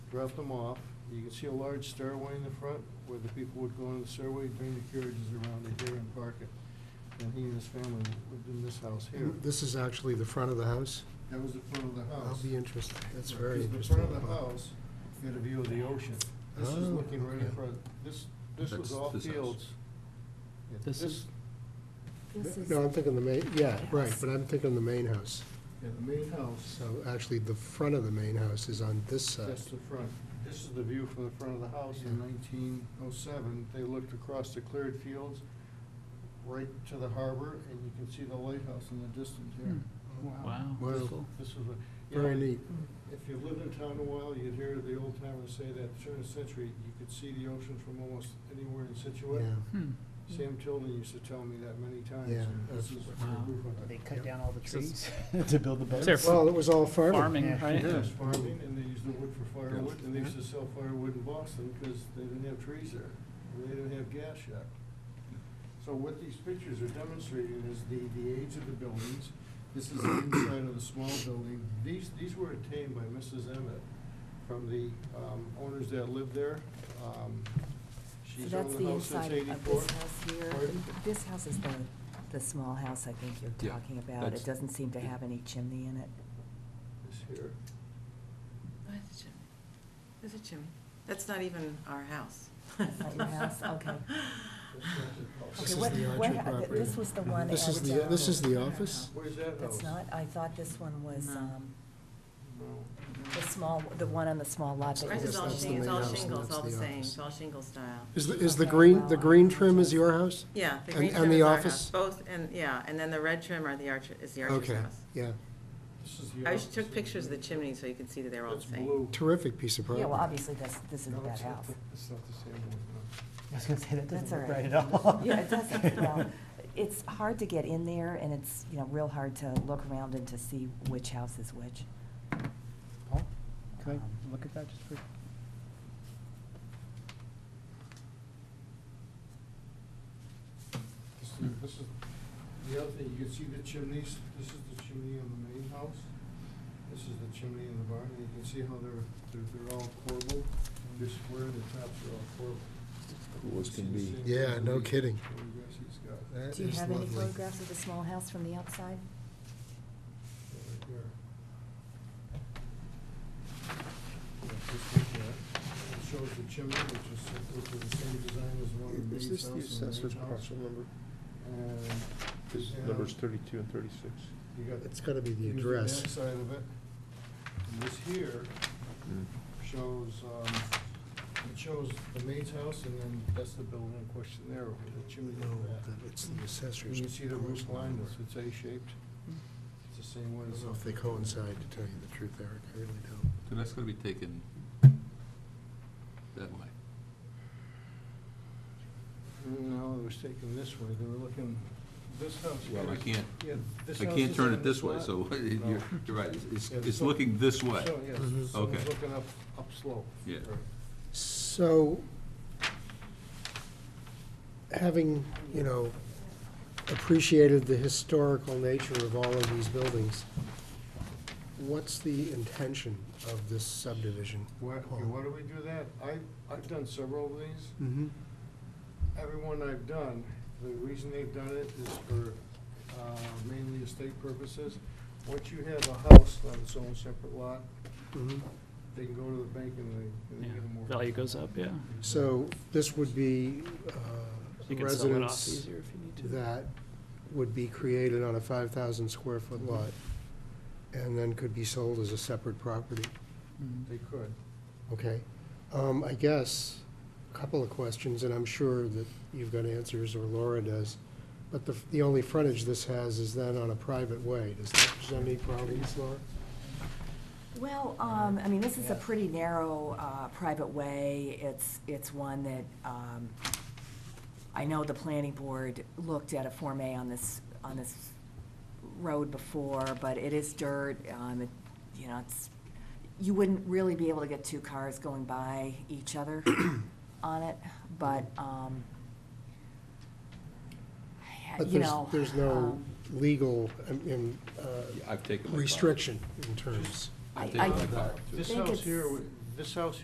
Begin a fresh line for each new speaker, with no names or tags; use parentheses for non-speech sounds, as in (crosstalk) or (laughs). drop them off. You can see a large stairway in the front where the people would go on the stairway, bring the carriages around to here and park it. And he and his family lived in this house here.
This is actually the front of the house?
That was the front of the
I'll
house.
be interested, that's
Right,
very
'cause
interesting.
Oh. The front of the house, you had a view of the ocean. This is
Oh,
looking right
okay.
in front, this, this was
That's
all
this house.
fields. Yeah,
This is-
This is,
No, I'm thinking the main, yeah, right,
House.
but I'm thinking the main house.
Yeah, the main house,
So actually, the front of the main house is on this side.
that's the front. This is the view from the front of the house in nineteen oh seven. They looked across the cleared fields right to the harbor, and you can see the lighthouse in the distance here.
Wow.
Wow.
that's cool.
This was a. you
Hmm. Very
know,
neat.
If you lived in town a while, you'd hear the old timers say that during the century, you could see the ocean from almost anywhere in Situate.
Yeah.
Hmm.
Sam Tilden used to tell me that many times.
Yeah.
and this is
Wow.
her proof of
They
it.
cut
Yep.
down all the
So
trees (laughs) to build the boats.
They're
Well, it was all farming.
farming,
Yeah.
right?
Yes, farming, and they used the wood for firewood, and they
Yeah.
used to sell firewood in Boston because they didn't have trees there. and They didn't have gas yet. So what these pictures are demonstrating is the, the age of the buildings. This is the inside of the small building. These, these were obtained by Mrs. Emmett from the um, owners that lived there. Um,
so
She's
that's
owned
the
the house since
inside of
eighty-four.
this house here.
Pardon?
This house is the, the small house I think you're
Yeah,
talking about.
that's-
It doesn't seem to have any chimney in it.
This here.
Oh, it's a chimney. It's a chimney. That's not even our house.
That's not your
(laughs)
house? Okay.
That's not their house.
This
Okay,
is
what-
the
what
Archer
ha- th-
property.
This was the one
This is
at,
the-
uh,
this is the office?
Where's that house?
That's not, I thought this one was,
No.
um,
No.
the small, the one on the small lot that
Ours
you
is all
That's the
shingles, it's
main
all
house and
shingles,
that's
all the
the
same,
office.
it's all shingle style.
Is the, is the
Okay,
green,
well,
the
I-
green trim is your house?
Yeah, the
And-
green
and
trim
the
is our
office?
house, both, and, yeah, and then the red trim are the archer, is the archer's
Okay,
house.
yeah.
This is the
I
office.
took pictures of the chimney so you can see that they're all the
That's
same.
blue.
Terrific piece of
Yeah, well,
property.
obviously, that's, this
No,
isn't that
it's not
house.
the- It's not the same one.
I was gonna say, that
That's
doesn't
all
look
right.
right at all.
(laughs) Yeah, it
(laughs)
doesn't, well, it's hard to get in there, and it's, you know, real hard to look around and to see which house is which.
Paul, can I look at that just for?
This is- This is, the other thing, you can see the chimneys, this is the chimney on the main house, this is the chimney in the barn, and you can see how they're, they're, they're all corbelled, and they're square, and the tops are all corbelled.
Cool as
You see
can
the
be.
same
Yeah,
things
no
that he-
kidding.
that you guys he's got. Yeah,
That
Do you
is
have any
lovely.
photographs of the small house from the outside?
right here. Yeah, this is, uh, It shows the chimney, which is, which is the same design as the one in the main house. and main house.
number?
And
This
Yeah.
numbers thirty-two and thirty-six.
you got.
It's gotta be the
here's
address.
backside of it. And this here
Mm.
shows, um, it shows the maid's house, and then that's the building in question there, with the chimney
No,
and that.
that it's the
And
assessor's.
you see the roof
proposal
line,
number.
it's- it's A-shaped. It's the same
I
one.
don't
as
know if they coincide, to tell you the truth, Eric, I really don't.
So that's gonna be taken that way.
No, it was taken this way, they were looking, this house.
Well, I can't,
Yeah, this
I
house
can't
is
turn
on
it this way,
lot.
so (laughs)
No.
you're, you're right, it's- it's,
Yeah,
it's
so-
looking this way.
So, yes,
Mhm.
so it's
Okay.
looking up, up slope.
Yeah.
Right.
So, having, you know, appreciated the historical nature of all of these buildings, what's the intention of this subdivision?
Why, okay, why do we do that? I, I've done several of these.
Mm-hmm,
Everyone I've done, the reason they've done it is for uh, mainly estate purposes. Once you have a house on its own separate lot,
mm-hmm.
they can go to the bank and they, and they
Yeah,
get a mortgage.
Value goes up, yeah.
So, this would be uh,
You can sell it off
residence
easier if you need to.
that would be created on a five thousand square foot lot, and then could be sold as a separate property.
Hmm.
Mm.
Mm-hmm.
They could.
Okay, um, I guess, a couple of questions, and I'm sure that you've got answers, or Laura does. But the, the only frontage this has is then on a private way. Does that present any problems, Laura?
Uh, Well,
Uh,
um, I mean, this is a
Yeah.
pretty narrow, uh, private way. It's, it's one that, um, I know the planning board looked at a Form A on this, on this road before, but it is dirt, um, it, you know, it's, you wouldn't really be able to get two cars going by
(coughs)
each other on it, but, um,
But
you
there's,
know.
there's no
um,
legal, um, um, uh,
Yeah, I've taken my. copy.
restriction in terms.
I've
I-
taken
I-
my copy, too.
This
think
house
it's-
here, would- this house